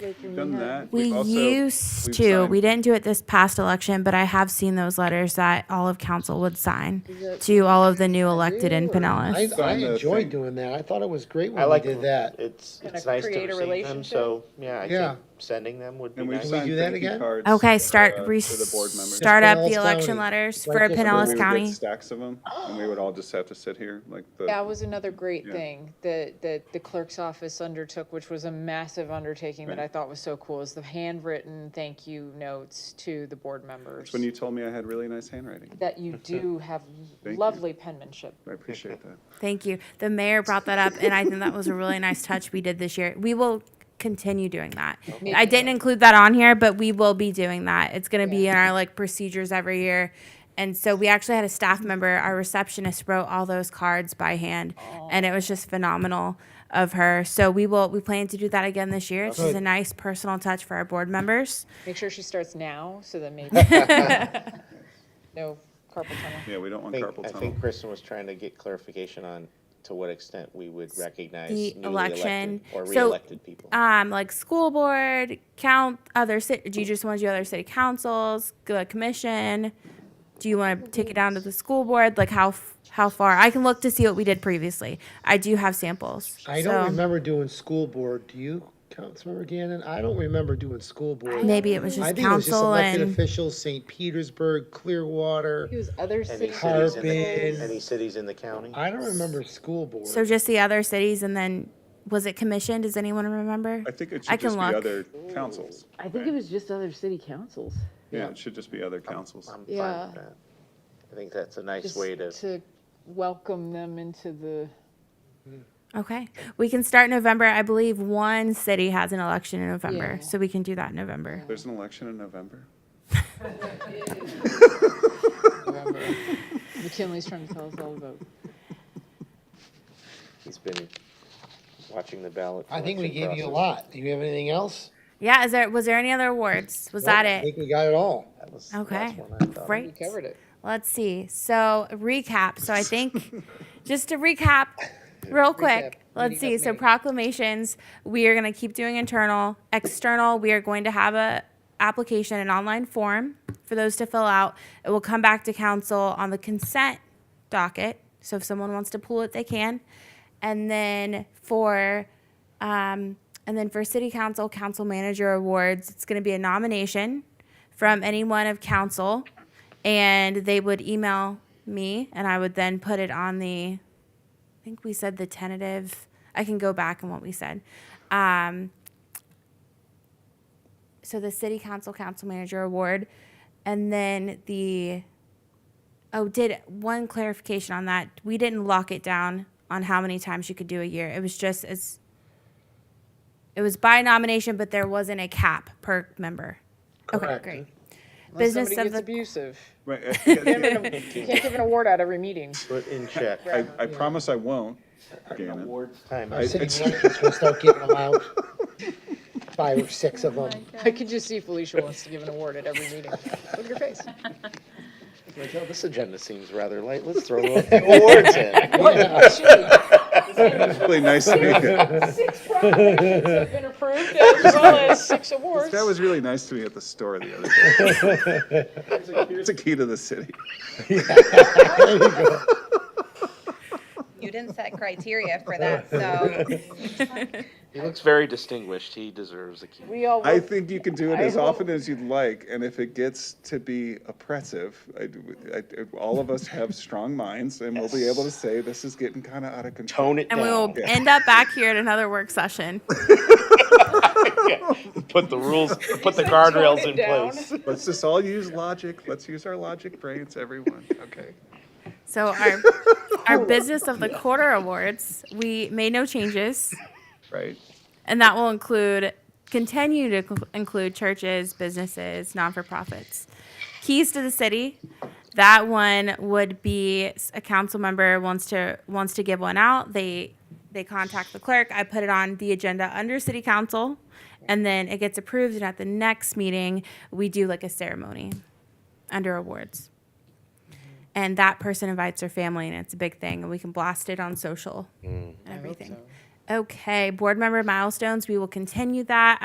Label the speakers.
Speaker 1: legislation.
Speaker 2: Done that.
Speaker 3: We
Speaker 2: We've also-
Speaker 3: used
Speaker 2: we've
Speaker 3: to.
Speaker 2: signed-
Speaker 3: We didn't do it this past election, but I have seen those letters that all of council would sign to all of the new elected in
Speaker 4: I,
Speaker 3: Pinellas.
Speaker 4: I
Speaker 2: Sign the
Speaker 4: enjoyed
Speaker 2: thing.
Speaker 4: doing that. I thought it was great
Speaker 5: I
Speaker 4: when Hmm. we
Speaker 5: like
Speaker 4: did that.
Speaker 5: It's,
Speaker 1: Kinda
Speaker 5: it's nice to
Speaker 1: create a
Speaker 5: receive them,
Speaker 1: relationship.
Speaker 5: so, yeah, I
Speaker 4: Yeah.
Speaker 5: think sending them would be
Speaker 2: And we've
Speaker 5: nice.
Speaker 4: we
Speaker 2: signed
Speaker 4: do that
Speaker 2: thank you
Speaker 4: again?
Speaker 2: cards
Speaker 3: Okay,
Speaker 2: for,
Speaker 3: start,
Speaker 2: uh,
Speaker 3: re-
Speaker 2: for the board members.
Speaker 3: start up the
Speaker 4: Pinellas
Speaker 3: election
Speaker 4: County.
Speaker 3: letters
Speaker 4: Like
Speaker 3: for
Speaker 4: this one.
Speaker 2: Where we
Speaker 3: Pinellas
Speaker 2: would get
Speaker 3: County.
Speaker 2: Stacks of them, and we would all just have to sit here, like the.
Speaker 1: That was another great
Speaker 2: Yeah.
Speaker 1: thing that, that the clerk's office undertook, which was a massive undertaking that
Speaker 2: Right.
Speaker 1: I thought was so cool, is the handwritten thank you notes to the board members.
Speaker 2: When you told me I had really nice handwriting,
Speaker 1: That you do have
Speaker 2: you.
Speaker 1: lovely penmanship.
Speaker 2: I appreciate that.
Speaker 3: Thank you. The mayor brought that up, and I think that was a really nice touch we did this year. We will continue doing that. I didn't include that on here, but we will be doing that. It's going to be in our like procedures every year. And so we actually had a staff member, our receptionist wrote all those cards by hand, and it was just phenomenal of her. So we will we plan to do that again this year. It's just a nice personal touch for our board members.
Speaker 1: Make sure she starts now, so that maybe. No carpal tunnel.
Speaker 2: Yeah, we don't want
Speaker 5: I think-
Speaker 2: carpal
Speaker 5: I
Speaker 2: tunnel.
Speaker 5: think Kristen was trying to get clarification on to what extent we would recognize
Speaker 3: The
Speaker 5: newly
Speaker 3: election.
Speaker 5: elected or
Speaker 3: So,
Speaker 5: re-elected people.
Speaker 3: um, like school board, count other city. Do you just want to do other city councils, the commission? Do you want to take it down to the school board? Like how f- how far? I can look to see what we did previously. I do have samples.
Speaker 4: I
Speaker 3: so
Speaker 4: don't remember doing school board. Do you, Councilmember Gannon? I don't remember doing school board.
Speaker 3: Maybe it was
Speaker 4: I
Speaker 3: just
Speaker 4: think it was just
Speaker 3: council
Speaker 4: elected
Speaker 3: and
Speaker 4: officials, St. Petersburg, Clearwater.
Speaker 1: Use other
Speaker 5: Any
Speaker 1: city
Speaker 5: cities
Speaker 4: Harbin.
Speaker 5: in the, any cities in the county?
Speaker 4: I don't remember school board.
Speaker 3: so just the other cities and then was it commission? Does anyone remember?
Speaker 2: I think it
Speaker 3: I
Speaker 2: should
Speaker 3: can
Speaker 2: just be
Speaker 3: look.
Speaker 2: other councils.
Speaker 6: I think it was just other city councils.
Speaker 2: Yeah, it should just be other councils.
Speaker 5: I'm fine with
Speaker 1: Yeah.
Speaker 5: that. I think that's a nice
Speaker 1: just
Speaker 5: way to,
Speaker 1: To welcome them into the,
Speaker 3: Okay, we can start November. I believe one city has an election in November,
Speaker 1: Yeah.
Speaker 3: so we can do that in November.
Speaker 2: There's an election in November.
Speaker 1: McKinley's trying to tell us all about.
Speaker 5: he's been watching the ballot.
Speaker 4: I think we
Speaker 5: collection
Speaker 4: gave you a
Speaker 5: process.
Speaker 4: lot. Do you have anything else?
Speaker 3: Yeah, is there was there any other awards? Was that
Speaker 4: I
Speaker 3: it?
Speaker 4: think we got it all.
Speaker 5: That was the last
Speaker 3: Okay,
Speaker 5: one I thought.
Speaker 3: great.
Speaker 1: We covered it.
Speaker 3: Let's see. So recap. So I think just to recap real quick, let's see. So proclamations, we are going to keep doing internal, external, we are going to have a application an online form for those to fill out. It will come back to council on the consent docket. So if someone wants to pull it, they can. And then for um, and then for city council, council manager awards, it's going to be a nomination from anyone of council. And they would email me and I would then put it on the, I think we said the tentative, I can go back on what we said. Um, so the city council, council manager award, and then the, oh, did one clarification on that. We didn't lock it down on how many times you could do a year. It was just as, it was by nomination, but there wasn't a cap per member. Okay,
Speaker 4: Correct.
Speaker 3: great.
Speaker 1: Unless
Speaker 3: Business
Speaker 1: somebody
Speaker 3: of
Speaker 1: gets
Speaker 3: the-
Speaker 1: abusive.
Speaker 2: Right, uh, yeah, yeah.
Speaker 1: You can't give an award out every meeting.
Speaker 5: Put in check.
Speaker 2: I, I promise I won't, Gannon.
Speaker 5: Time.
Speaker 4: Our city elections will start giving them out. Five or six of them.
Speaker 1: I could just see Felicia wants to give an award at every meeting. Look at your face.
Speaker 5: Like, oh, this agenda seems rather light. Let's throw a few awards in.
Speaker 2: Really nice to me.
Speaker 1: Been approved as well as six awards.
Speaker 2: That was really nice to me at the store the other day. Here's a- Here's a key to the city.
Speaker 7: You didn't set criteria for that, so
Speaker 5: He looks very distinguished. He deserves a key.
Speaker 1: We all
Speaker 2: I
Speaker 1: worked
Speaker 2: think you can do it
Speaker 1: I
Speaker 2: as
Speaker 1: hope-
Speaker 2: often as you'd like, and if it gets to be oppressive, I, do- I- all of us have strong minds, and we'll be able to say, this is getting kind of out of control.
Speaker 5: Tone it
Speaker 3: And we will
Speaker 5: down.
Speaker 3: end up back here at another work session.
Speaker 5: Put the rules, put the guardrails in
Speaker 1: down.
Speaker 5: place.
Speaker 2: Let's just all use logic, let's use our logic brains, everyone, okay?
Speaker 3: So our our business of the quarter awards, we made no changes,
Speaker 2: Right?
Speaker 3: and that will include continue to cl- include churches, businesses, non for profits. Keys to the city. That one would be s- a council member wants to wants to give one out. They they contact the clerk. I put it on the agenda under city council, and then it gets approved. And at the next meeting, we do like a ceremony under awards. and that person invites their family and it's a big thing and we can blast it on social and everything okay board member milestones we will continue that